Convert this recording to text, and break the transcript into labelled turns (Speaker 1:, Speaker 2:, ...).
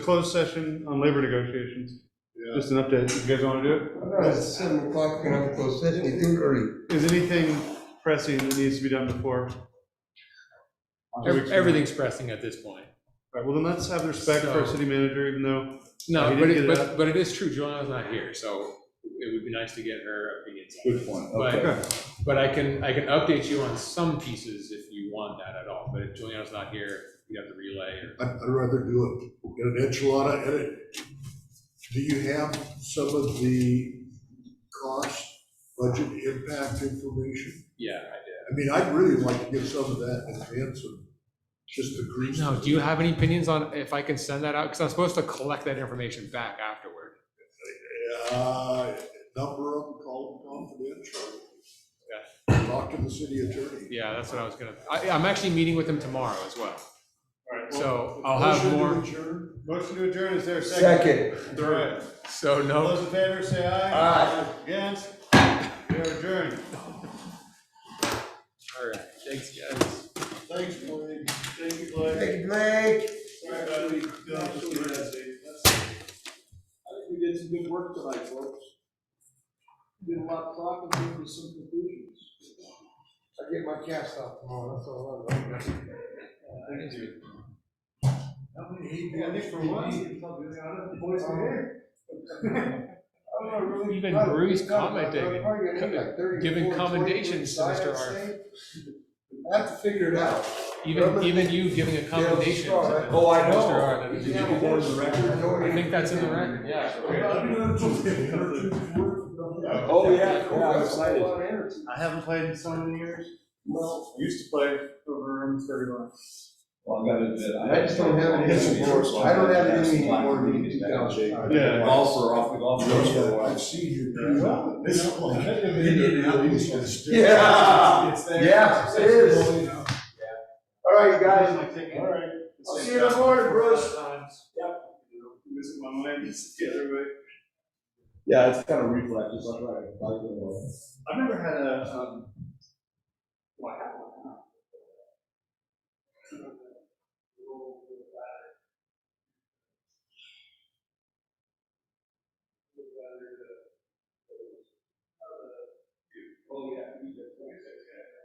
Speaker 1: Closed session on labor negotiations,
Speaker 2: Yeah.
Speaker 1: just an update, you guys want to do
Speaker 3: It's seven o'clock, we're gonna have to close session, it's early.
Speaker 1: it? Is anything pressing that needs to be done before? Two weeks
Speaker 4: Ev-
Speaker 1: from now.
Speaker 4: Everything's pressing at this point.
Speaker 1: All right, well, then let's have the respect for our
Speaker 4: So-
Speaker 1: city manager, even though,
Speaker 4: No,
Speaker 1: He
Speaker 4: but,
Speaker 1: didn't
Speaker 4: it-
Speaker 1: get it
Speaker 4: but, but it is true, Joanna's not here, so it would be nice to get her opinions. on
Speaker 2: Good
Speaker 4: this.
Speaker 2: point,
Speaker 4: But,
Speaker 1: okay,
Speaker 4: but I can, I can update you on some pieces if you want that at all, but if Juliana's not here, you have the relay or.
Speaker 2: I'd, I'd rather do it, get an enchilada in it. Do you have some of the cost, budget impact information?
Speaker 4: Yeah, I
Speaker 2: I mean, I'd really like to get some of that in advance of just the grease.
Speaker 4: No, do you have any opinions on if I can send that out? Because I'm supposed to collect that information back afterward.
Speaker 2: Uh, number of them, call them confidential. Talk to the city attorney.
Speaker 4: Yeah, that's what I was gonna, I, I'm actually meeting with them tomorrow as well,
Speaker 1: all right, well,
Speaker 4: so I'll have more,
Speaker 2: Motion to adjourn?
Speaker 1: motion to adjourn, is there a second?
Speaker 3: Second.
Speaker 1: All right.
Speaker 4: so
Speaker 1: All
Speaker 4: no.
Speaker 1: those in favor, say aye.
Speaker 3: Aye.
Speaker 1: Against, we are adjourned.
Speaker 4: All right, thanks, guys.
Speaker 2: Thanks, Blake. Thank you, Blake.
Speaker 3: Thank you, Blake.
Speaker 2: Sorry about it. We don't have to do that, Steve. That's- I think we did some good work tonight, folks. Did a lot of talking, came to some conclusions.
Speaker 3: I get my cast off tomorrow, that's all I want.
Speaker 2: How many hate
Speaker 1: Yeah, Nick, for once,
Speaker 2: I don't know, really.
Speaker 4: Even Bruce commenting, giving commendations to Mr. Arndt.
Speaker 3: I have to figure it out.
Speaker 4: even, even you giving a commendation. to Mr.
Speaker 3: Oh, I know.
Speaker 4: Arnott.
Speaker 3: Did you get that in the record?
Speaker 4: I think that's in the record, yeah.
Speaker 3: Oh, yeah, yeah, I'm excited.
Speaker 1: I haven't played in so many years. Well. Used to play over in thirty one.
Speaker 5: Well, I gotta admit, I.
Speaker 3: I just don't have any support. I don't have any more than 2,000.
Speaker 1: Yeah.
Speaker 5: Golf for off, golf course for a while.
Speaker 2: I've seen you. This is like.
Speaker 3: Yeah. Yeah, it is. All right, guys,
Speaker 1: All right.
Speaker 3: I'll see you in the morning, Bruce.
Speaker 1: Yep. Visit my mind, it's the other way.
Speaker 5: Yeah, it's kind of reflex, it's like, right, like, you know,
Speaker 1: I've never had a, um, well, I have